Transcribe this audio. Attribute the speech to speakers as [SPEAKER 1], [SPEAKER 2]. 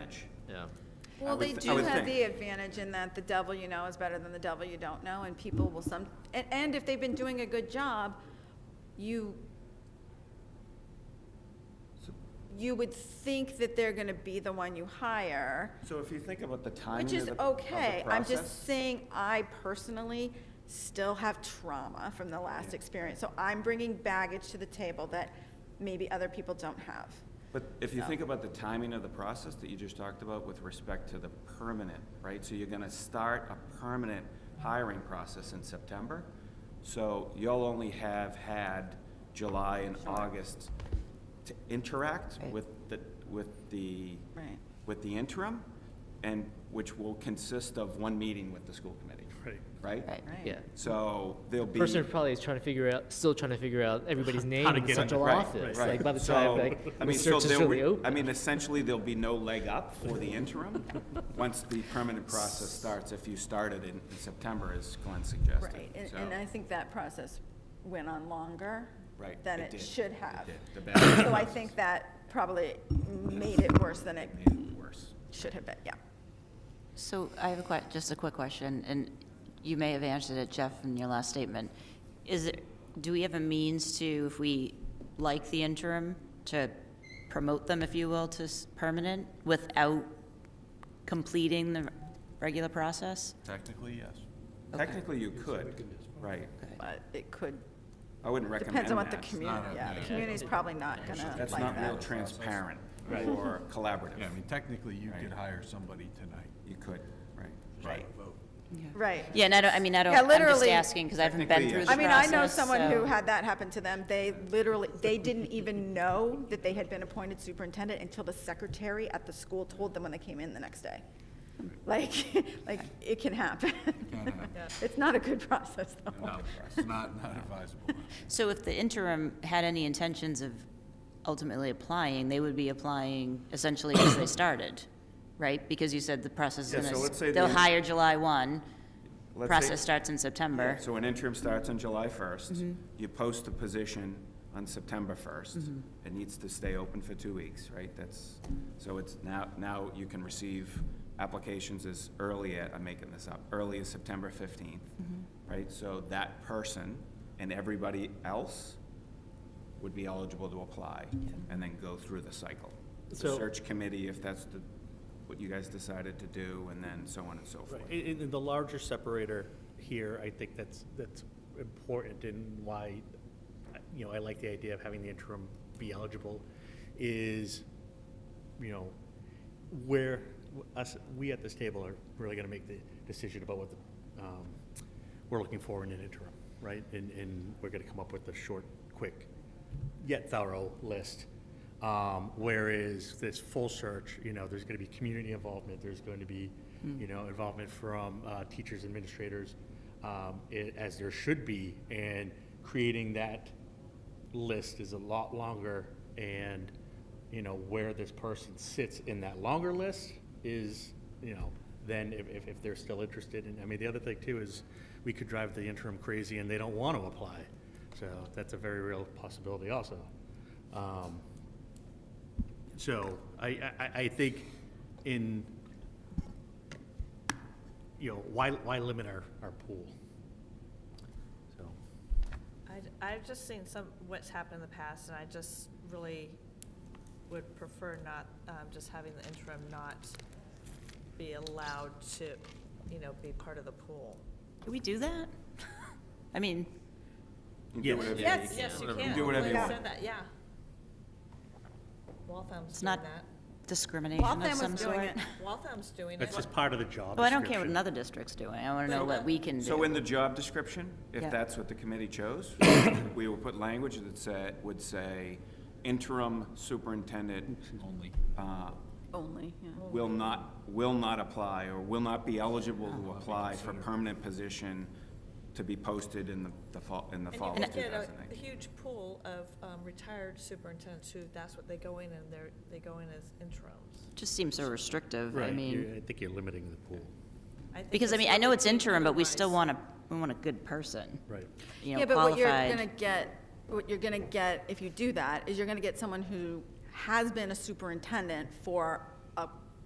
[SPEAKER 1] advantage.
[SPEAKER 2] Yeah.
[SPEAKER 1] I
[SPEAKER 3] Well,
[SPEAKER 1] would
[SPEAKER 3] they
[SPEAKER 1] th- I
[SPEAKER 3] do
[SPEAKER 1] would
[SPEAKER 3] have
[SPEAKER 1] think.
[SPEAKER 3] the advantage in that the devil you know is better than the devil you don't know, and people will some, and, and if they've been doing a good job, you, you would think that they're gonna be the one you hire,
[SPEAKER 1] So if you think about the timing
[SPEAKER 3] which
[SPEAKER 1] of
[SPEAKER 3] is
[SPEAKER 1] the, of the
[SPEAKER 3] okay. I'm just
[SPEAKER 1] process,
[SPEAKER 3] saying, I personally still have trauma from the last
[SPEAKER 1] Yeah.
[SPEAKER 3] experience, so I'm bringing baggage to the table that maybe other people don't have.
[SPEAKER 1] But if you
[SPEAKER 3] so.
[SPEAKER 1] think about the timing of the process that you just talked about with respect to the permanent, right? So you're gonna start a permanent hiring process in September. So you'll only have had July and August to interact
[SPEAKER 4] Right.
[SPEAKER 1] with the, with the,
[SPEAKER 3] Right.
[SPEAKER 1] with the interim, and which will consist of one meeting with the school committee. Right. Right?
[SPEAKER 4] Right.
[SPEAKER 2] Yeah.
[SPEAKER 1] So there'll be.
[SPEAKER 2] Person probably is trying to figure out, still trying to figure out everybody's name
[SPEAKER 5] to
[SPEAKER 2] in the
[SPEAKER 5] get in
[SPEAKER 2] central
[SPEAKER 1] Right,
[SPEAKER 2] office.
[SPEAKER 1] right.
[SPEAKER 2] Like by the
[SPEAKER 1] So,
[SPEAKER 2] time like
[SPEAKER 1] I mean,
[SPEAKER 2] the
[SPEAKER 1] so
[SPEAKER 2] search is
[SPEAKER 1] there
[SPEAKER 2] really
[SPEAKER 1] would-
[SPEAKER 2] open.
[SPEAKER 1] I mean, essentially, there'll be no leg up for the interim, once the permanent process starts, if you started in in September, as Glenn suggested.
[SPEAKER 3] Right, and,
[SPEAKER 1] So-
[SPEAKER 3] and I think that process went on longer
[SPEAKER 1] Right,
[SPEAKER 3] than
[SPEAKER 1] it
[SPEAKER 3] it
[SPEAKER 1] did.
[SPEAKER 3] should
[SPEAKER 1] It
[SPEAKER 3] have.
[SPEAKER 1] did. The ballot
[SPEAKER 3] So I
[SPEAKER 1] process.
[SPEAKER 3] think that probably made it worse than it
[SPEAKER 1] Made it worse.
[SPEAKER 3] should have been, yeah.
[SPEAKER 4] So I have a que, just a quick question, and you may have answered it, Jeff, in your last statement. Is it, do we have a means to, if we like the interim, to promote them, if you will, to s- permanent without completing the regular process?
[SPEAKER 1] Technically, yes.
[SPEAKER 4] Okay.
[SPEAKER 1] Technically, you could, right.
[SPEAKER 3] But it could,
[SPEAKER 1] I wouldn't recommend that.
[SPEAKER 3] depends on what the
[SPEAKER 1] It's
[SPEAKER 3] community,
[SPEAKER 1] not a-
[SPEAKER 3] yeah, the community's probably not gonna
[SPEAKER 1] That's
[SPEAKER 3] like
[SPEAKER 1] not real
[SPEAKER 3] that.
[SPEAKER 1] transparent or
[SPEAKER 6] Yeah, I
[SPEAKER 1] collaborative.
[SPEAKER 6] mean, technically, you
[SPEAKER 1] Right.
[SPEAKER 6] could hire somebody tonight.
[SPEAKER 1] You could, right.
[SPEAKER 6] Right.
[SPEAKER 3] Right.
[SPEAKER 4] Yeah, and I don't, I mean, I don't,
[SPEAKER 3] Yeah,
[SPEAKER 4] I'm just
[SPEAKER 3] literally-
[SPEAKER 4] asking, because I haven't been
[SPEAKER 1] Technically,
[SPEAKER 4] through
[SPEAKER 1] yes.
[SPEAKER 4] the
[SPEAKER 3] I mean, I know
[SPEAKER 4] process,
[SPEAKER 3] someone who
[SPEAKER 4] so-
[SPEAKER 3] had that happen to them. They literally, they didn't even know that they had been appointed superintendent until the secretary at the school told them when they came in the next day. Like, like, it can happen.
[SPEAKER 6] can happen.
[SPEAKER 3] It's not a good process, though.
[SPEAKER 6] No, it's not, not advisable.
[SPEAKER 4] So if the interim had any intentions of ultimately applying, they would be applying essentially as they started, right? Because you said the process is
[SPEAKER 1] Yeah,
[SPEAKER 4] gonna,
[SPEAKER 1] so let's
[SPEAKER 4] s-
[SPEAKER 1] say
[SPEAKER 4] they'll
[SPEAKER 1] the-
[SPEAKER 4] hire July one,
[SPEAKER 1] Let's say-
[SPEAKER 4] process starts in September.
[SPEAKER 1] So an interim starts on July 1st. You post the position on September 1st. It needs to stay open for two weeks, right? That's, so it's now, now you can receive applications as early, a- I'm making this up, early as September 15th, right? So that person and everybody else would be eligible to apply and then go through the cycle. The
[SPEAKER 5] So-
[SPEAKER 1] search committee, if that's the, what you guys decided to do, and then so on and so forth.
[SPEAKER 5] Right, in, in the larger separator here, I think that's, that's important and why, you know, I like the idea of having the interim be eligible is, you know, where us, we at this table are really gonna make the decision about what the, um, we're looking for in an interim, right? And, and we're gonna come up with a short, quick, yet thorough list. Um, whereas this full search, you know, there's going to be community involvement, there's going to be, you know, involvement from uh, teachers, administrators, um, i- as there should be, and creating that list is a lot longer, and you know where this person sits in that longer list is, you know, then if, if, if they're still interested, and I mean the other thing too is we could drive the interim crazy and they don't want to apply, so that's a very real possibility also. Um, so I, I- I, I think in, you know, why, why limit our, our pool? So,
[SPEAKER 7] I, have just seen some, what's happened in the past, and I just really would prefer not, um, just having the interim not be allowed to, you know, be part of the pool.
[SPEAKER 4] Can we do that? I mean,
[SPEAKER 1] You do
[SPEAKER 5] Yes.
[SPEAKER 1] whatever you
[SPEAKER 7] Yes,
[SPEAKER 1] need.
[SPEAKER 7] yes, you
[SPEAKER 1] You
[SPEAKER 7] can.
[SPEAKER 1] do whatever you
[SPEAKER 7] Liz
[SPEAKER 1] want.
[SPEAKER 7] said that, Yeah. Waltham's
[SPEAKER 4] it's
[SPEAKER 7] doing
[SPEAKER 4] not
[SPEAKER 7] that.
[SPEAKER 4] discrimination
[SPEAKER 3] Waltham
[SPEAKER 4] of
[SPEAKER 3] was
[SPEAKER 4] some
[SPEAKER 3] doing
[SPEAKER 4] sort.
[SPEAKER 3] it.
[SPEAKER 7] Waltham's doing it.
[SPEAKER 5] that's just part of the job
[SPEAKER 4] Well, I don't care what
[SPEAKER 5] description.
[SPEAKER 4] another district's doing, I want to know what we can do.
[SPEAKER 1] So in the job description, if
[SPEAKER 4] Yeah.
[SPEAKER 1] that's what the committee chose, we will put language that said, would say interim superintendent. Only.
[SPEAKER 3] Only, yeah.
[SPEAKER 1] Will not, will not apply or will not be eligible to apply for permanent position to be posted in the- the fall, in the
[SPEAKER 7] And
[SPEAKER 1] fall
[SPEAKER 7] you
[SPEAKER 1] of
[SPEAKER 7] could get a- a
[SPEAKER 1] 2019.
[SPEAKER 7] huge pool of um, retired superintendents who, that's what they go in, and they're, they go in as interims.
[SPEAKER 4] Just seems so restrictive, I
[SPEAKER 5] Right, you're-
[SPEAKER 4] mean,
[SPEAKER 5] I think you're limiting the pool,
[SPEAKER 7] think
[SPEAKER 4] because I
[SPEAKER 7] that's
[SPEAKER 4] mean,
[SPEAKER 7] what
[SPEAKER 4] I know
[SPEAKER 7] we
[SPEAKER 4] it's
[SPEAKER 7] need to
[SPEAKER 4] interim, but we
[SPEAKER 7] minimize.
[SPEAKER 4] still want a, we want a good person,
[SPEAKER 5] right.
[SPEAKER 4] you know,
[SPEAKER 3] Yeah, but what you're
[SPEAKER 4] qualified.
[SPEAKER 3] gonna get, what you're gonna get if you do that is you're gonna get someone who has been a superintendent for a